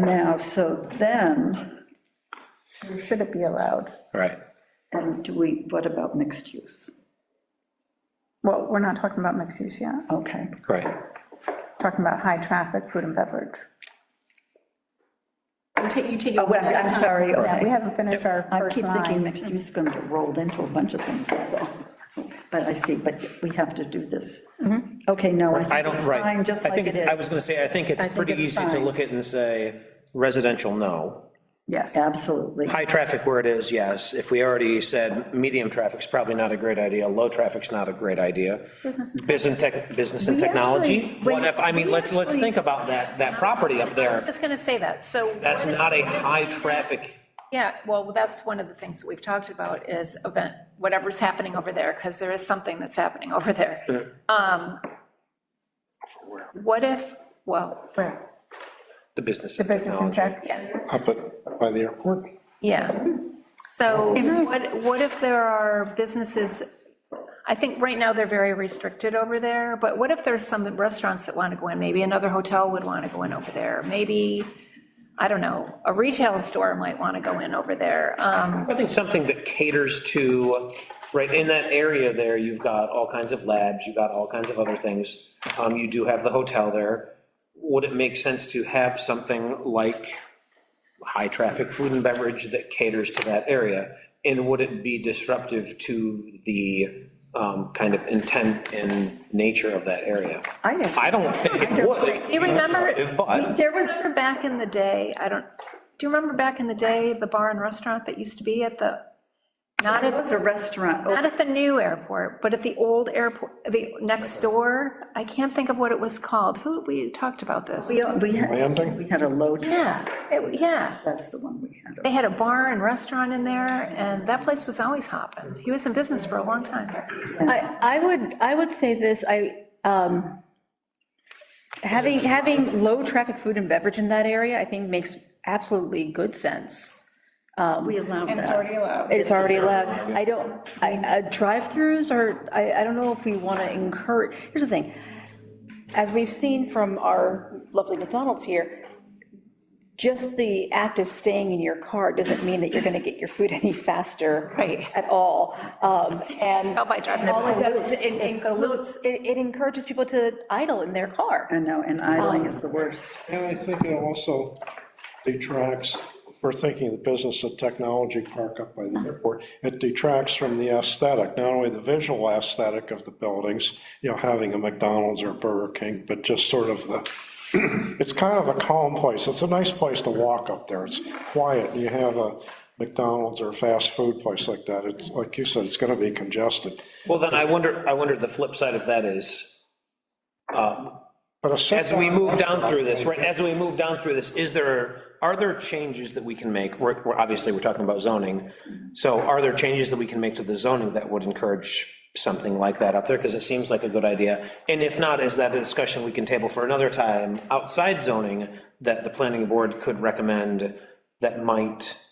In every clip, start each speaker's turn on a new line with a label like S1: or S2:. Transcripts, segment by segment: S1: Now, so then, where should it be allowed?
S2: Right.
S1: And do we, what about mixed use?
S3: Well, we're not talking about mixed use yet,
S1: Okay,
S2: Right.
S3: talking about high traffic, food and beverage.
S4: You take, you take.
S1: oh, wait, I'm sorry,
S3: Yeah, we
S1: okay.
S3: haven't finished our
S1: I
S3: first
S1: keep thinking
S3: line.
S1: mixed use is going to get rolled into a bunch of things, that's all. But I see, but we have to do this. Okay, no, I
S2: I
S1: think
S2: don't,
S1: it's
S2: right.
S1: fine, just
S2: I
S1: like
S2: think
S1: it
S2: it's- I was
S1: is.
S2: gonna say, I think
S1: I
S2: it's
S1: think
S2: pretty
S1: it's
S2: easy to
S1: fine.
S2: look at and say, residential, no.
S3: Yes,
S1: Absolutely.
S2: High traffic where it is, yes. If we already said medium traffic's probably not a great idea, low traffic's not a great idea.
S3: Business and
S2: Business and tech, business and
S1: We
S2: technology?
S1: actually-
S2: What if, I mean,
S1: we
S2: let's, let's
S1: actually-
S2: think about that, that property up
S4: I
S2: there.
S4: was just gonna say that, so.
S2: That's not a high traffic,
S4: Yeah, well, that's one of the things that we've talked about is event, whatever's happening over there, because there is something that's happening over there. Um, What if, well,
S3: where?
S2: the business
S3: The
S2: and
S3: business and
S2: technology.
S3: tech,
S4: yeah,
S5: up at, by the airport.
S4: yeah. So what, what if there are businesses, I think right now they're very restricted over there, but what if there's some restaurants that want to go in? Maybe another hotel would want to go in over there, maybe, I don't know, a retail store might want to go in over there. Um,
S2: I think something that caters to, right, in that area there, you've got all kinds of labs, you've got all kinds of other things. Um, You do have the hotel there. Would it make sense to have something like high-traffic food and beverage that caters to that area? And would it be disruptive to the um, kind of intent and nature of that area?
S1: I agree.
S2: I don't think it would.
S4: Do you remember,
S2: But,
S4: There was, back in the day, I don't, do you remember back in the day, the bar and restaurant that used to be at the, not
S1: It
S4: at,
S1: was a restaurant,
S4: not
S1: oh,
S4: at the new airport, but at the old airport, the next door? I can't think of what it was called. Who, we talked about this.
S1: we, we had,
S5: Landing?
S1: we had a low,
S4: Yeah, it- yeah.
S1: that's the one we had.
S4: They had a bar and restaurant in there, and that place was always hopping. He was in business for a long time.
S6: I, I would, I would say this, I, um, having, having low-traffic food and beverage in that area, I think makes absolutely good sense.
S1: We allowed
S3: and it's
S1: that.
S3: already allowed.
S6: It's already allowed. I don't, I, uh, drive-throughs are, I, I don't know if we want to encourage, here's the thing, as we've seen from our lovely McDonald's here, just the act of staying in your car doesn't mean that you're going to get your food any faster.
S4: Right.
S6: At all, um, and.
S4: Tell by driving
S6: All it
S4: the-
S6: does is it includes, it it encourages people to idle in their car.
S1: I know, and idling is the worst.
S5: And I think it also detracts, if we're thinking the business of technology park up by the airport, it detracts from the aesthetic, not only the visual aesthetic of the buildings, you know, having a McDonald's or Burger King, but just sort of the, it's kind of a calm place. It's a nice place to walk up there. It's quiet. You have a McDonald's or a fast food place like that. It's, like you said, it's going to be congested.
S2: well, then I wonder, I wonder the flip side of that is,
S5: But a
S2: As we
S5: sit-down
S2: move down through this, right, as we move down through this, is there, are there changes that we can make? We're, we're, obviously, we're talking about zoning, so are there changes that we can make to the zoning that would encourage something like that up there? Because it seems like a good idea, and if not, is that a discussion we can table for another time, outside zoning, that the planning board could recommend that might,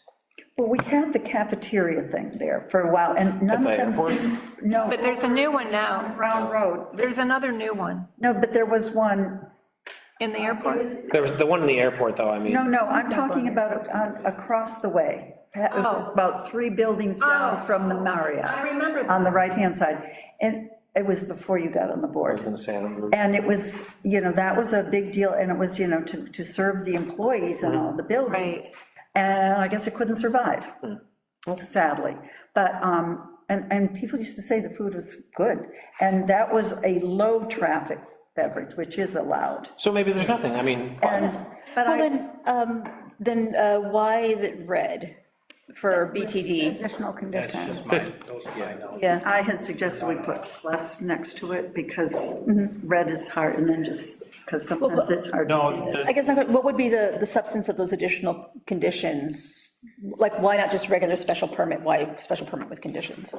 S1: Well, we had the cafeteria thing there for a while, and none
S2: At
S1: of
S2: the
S1: them
S2: airport?
S1: seemed, no,
S4: But there's a new one now.
S1: Brown Road,
S4: There's another new one
S1: no, but there was one,
S4: in the airport.
S2: there was the one in the airport, though, I mean.
S1: no, no, I'm talking about on- across the way, It was
S4: Oh.
S1: about three buildings down
S4: Oh.
S1: from the Marriott.
S4: I remember that.
S1: On the right-hand side, and it was before you got on the board.
S2: I was gonna say, I don't remember.
S1: And it was, you know, that was a big deal, and it was, you know, to, to serve the employees and all the buildings.
S4: Right.
S1: And I guess it couldn't survive, sadly. But, um, and, and people used to say the food was good, and that was a low-traffic beverage, which is allowed.
S2: So maybe there's nothing, I mean,
S1: And, but
S6: Well,
S1: I,
S6: then, um, then uh, why is it red for BTD?
S3: Additional conditions.
S6: Yeah,
S1: I had suggested we put plus next to it, because red is hard, and then just, because sometimes it's hard to see.
S6: I guess, my que- what would be the, the substance of those additional conditions? Like, why not just regular special permit, why special permit with conditions?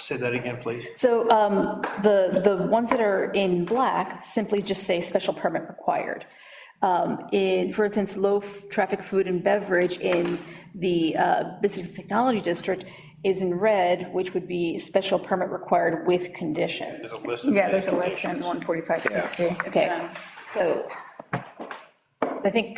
S7: Say that again, please.
S6: So um, the, the ones that are in black simply just say special permit required. Um, In, for instance, low-traffic food and beverage in the uh, Business Technology District is in red, which would be special permit required with conditions.
S7: There's a list of
S3: Yeah, there's a
S7: these
S3: list in 14560.
S6: Okay, so so I think